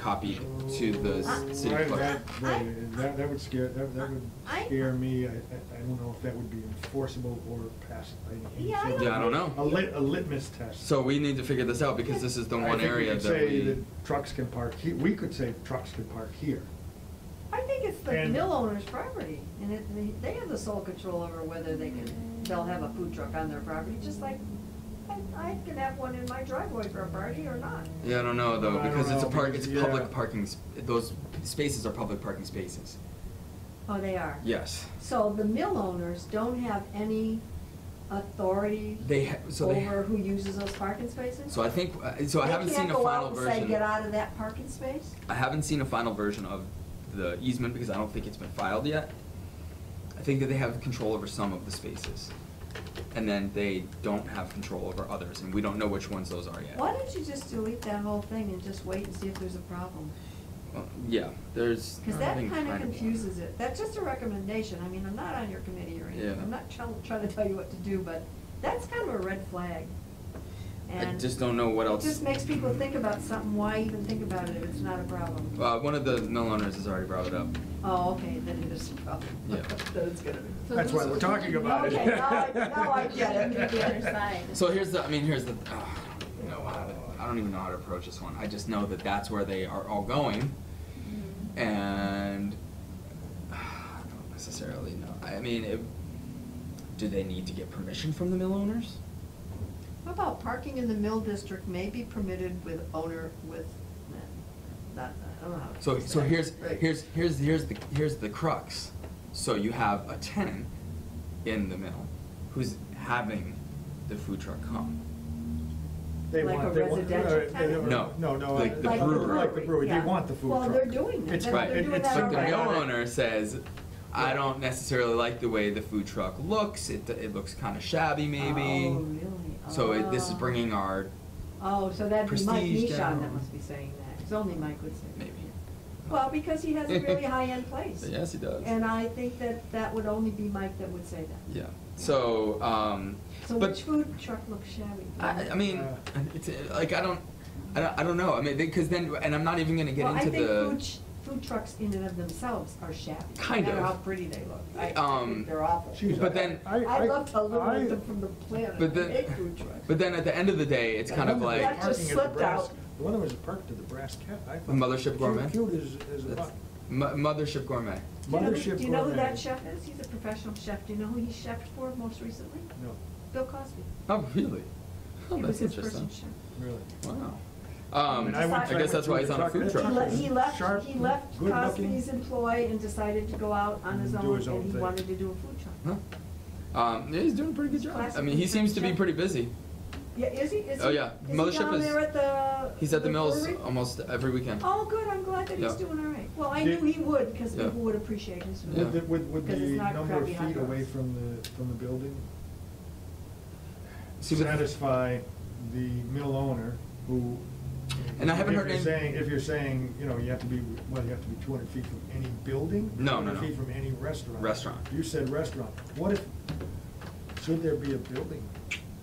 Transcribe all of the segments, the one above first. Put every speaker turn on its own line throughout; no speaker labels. copied to the
Ah.
s- city
Right,
clerk.
that, right, that, that would scare, that, that would
I-
scare me, I, I I don't know if that would be enforceable or pass.
Yeah, I don't-
Yeah, I don't know.
A lit, a litmus test.
So we need to figure this out because this is the
I
one
think we
area
could
that
Say
we,
that trucks can park, he- we could say trucks can park here.
I think it's the
And-
mill owner's property, and it, they- they have the sole control over whether they can, they'll have a food truck on their property, just like I, I can have one in my driveway for a party or not.
yeah, I don't know though,
I don't
because it's a
know,
park, it's
because-
public
yeah.
parking, s- those spaces are public parking spaces.
Oh, they are?
Yes.
So the mill owners don't have any authority
They ha- so they ha-
over who uses those parking spaces?
So I think, uh, so I haven't seen a final version.
They can't go out and say, get out of that parking space?
I haven't seen a final version of the easement because I don't think it's been filed yet. I think that they have control over some of the spaces. And then they don't have control over others, and we don't know which ones those are yet.
Why don't you just delete that whole thing and just wait and see if there's a problem?
Well, Uh, Yeah, there's.
Because
I
that
think
kind of
kind of-
confuses it. That's just a recommendation. I mean, I'm not on your committee or anything.
Yeah.
I'm not trying, trying to tell you what to do, but that's kind of a red flag.
I
And
just don't know what else.
It just makes people think about something. Why even think about it if it's not a problem?
Uh, one of the mill owners has already brought it up.
Oh, okay, then it is a problem.
Yeah.
Then it's gonna be.
That's why we're talking about it.
Okay, now I- now I get it.
The other side.
So here's the, I mean, here's the, uh, I don't even know how to, I don't even know how to approach this one. I just know that that's where they are all going, and uh, I don't necessarily know. I mean, it, do they need to get permission from the mill owners?
How about parking in the mill district may be permitted with owner with, not, I don't know how. to
So,
say
so
that.
here's,
Right.
here's, here's, here's the, here's the crux. So you have a tenant in the mill who's having the food truck come.
They
Like
want-
a
they want-
residential
uh, they
tenant?
don't-
No,
No, no.
like
uh,
the
like
brewery.
Like the brewery, they
Yeah.
want the food truck.
Well, they're doing that.
It's-
They're-
Right.
they're doing
it's
that
But the
already.
mill
Right.
owner says, I
Yeah.
don't necessarily like the way the food truck looks, it, it looks kinda shabby maybe.
Oh, really?
So it, this is
Oh.
bringing our,
Oh, so that'd be Mike
Prestige
Nishon that
down.
must be saying that, because only Mike would say that.
maybe.
Well, because he has a really high-end place.
Yes, he does.
And I think that that would only be Mike that would say that.
Yeah, so, um,
So
but.
which food truck looks shabby?
I, I mean,
Yeah.
it's, uh, like, I don't, I don't, I don't know, I mean, because then, and I'm not even gonna get into the.
Well, I think food, ch- food trucks in and of themselves are shabby.
Kind
No
of.
matter how pretty they look. I- I
Um,
think they're awful.
Jeez,
But
I-
then-
I- I-
I'd love to eliminate
I-
them from the planet.
But
I hate food
then,
trucks.
but then at the end of the day, it's
The
kind of
one that was
like,
That just
parking at the
slipped
brass-
out.
The one that was parked at the Brass Cat, I thought.
Mothership Gourmet?
Cute cute as, as a
That's-
buck.
Mo- Mothership Gourmet.
Do you know who-
Mothership
Do you know who
Gourmet.
that chef is? He's a professional chef. Do you know who he chefed for most recently?
No,
Bill Cosby.
Oh, really? Oh,
He
that's
was his first
interesting.
chef.
really.
Wow.
I
Um,
mean,
I,
I went- I
guess
went
that's
through
why
the
he's on a
truck-
food
that
He
truck
le-
truck.
was
He left,
sharp,
he left
good looking.
Cosby's employ and decided to go out on his
Do
own,
his own
and he
thing.
wanted to do a food truck.
Huh? Um, yeah, he's doing a pretty good job. I
Classic
mean, he
food
seems to be
truck.
pretty busy.
Yeah, is he, is he?
Oh, yeah.
is he
Mothership
down
is-
there at the?
He's at the mills
brewery?
almost every weekend.
Oh, good, I'm glad that he's
Yeah.
doing all right. Well, I
Did-
knew he would, because
Yeah.
people would appreciate his
Yeah.
Would, the-
food.
would, would the
Because it's not
number of
crappy hot
feet away
dogs.
from the, from the building
See, but-
satisfy the mill owner who?
And I haven't heard any-
If you're saying, if you're saying, you know, you have to be, well, you have to be two hundred feet from any building?
No, no,
200
no.
feet from any restaurant?
Restaurant.
You said restaurant. What if, should there be a building?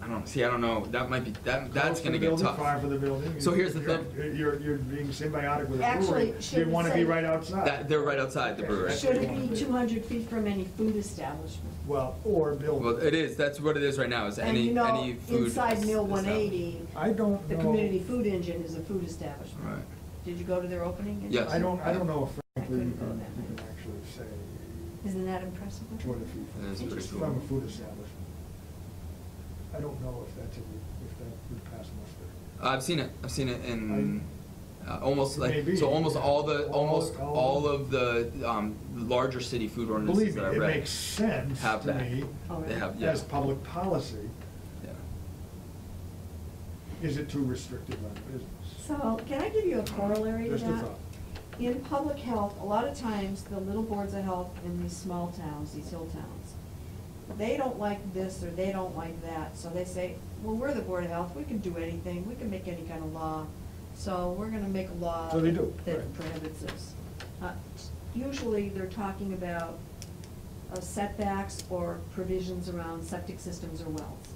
I don't see. I don't know. That might be. That
Close
that's
to
gonna
the
get
building,
tough.
Far for the building?
So here's the
You're-
thing.
You're, you're being symbiotic with a
Actually,
brewery.
it should
You wanna be
say-
right outside.
That- they're right outside the
Okay,
brewery.
that's
Should
what you
it
wanna
be
do.
two hundred feet from any food establishment?
Well, or building.
Well, it is. That's what it is right now. Is
And
any
you know,
any food
inside Mill
is- is
one
that-
eighty,
I don't know.
the community food engine is a food establishment.
Right.
Did you go to their opening?
Yes.
I don't, I don't know if
I
frankly you
couldn't go
can,
that
you
way.
can actually say
Isn't that impressive?
two hundred feet
That is
from-
pretty cool.
from a food establishment. I don't know if that's, a if that would pass muster.
I've seen it. I've seen it in uh, almost
It
like
may be,
so almost
yeah.
all the
All-
almost
all-
all of the um, larger city food ordinances
Believe me,
that I
it
read
makes sense
have
to
that.
me
Oh,
They
really?
have yeah.
As public policy,
yeah.
is it too restrictive on business?
So, can I give you a corollary to
Just a
that?
thought.
In public health, a lot of times, the little boards of health in these small towns, these hill towns, they don't like this or they don't like that, so they say, well, we're the board of health, we can do anything, we can make any kind of law, so we're gonna make a law.
So they do,
That
right.
prohibits this. Uh, Usually, they're talking about uh, setbacks or provisions around septic systems or wells,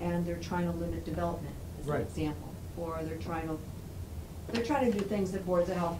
and they're trying to limit development, as an
Right.
example, or they're trying to they're trying to do things that boards of health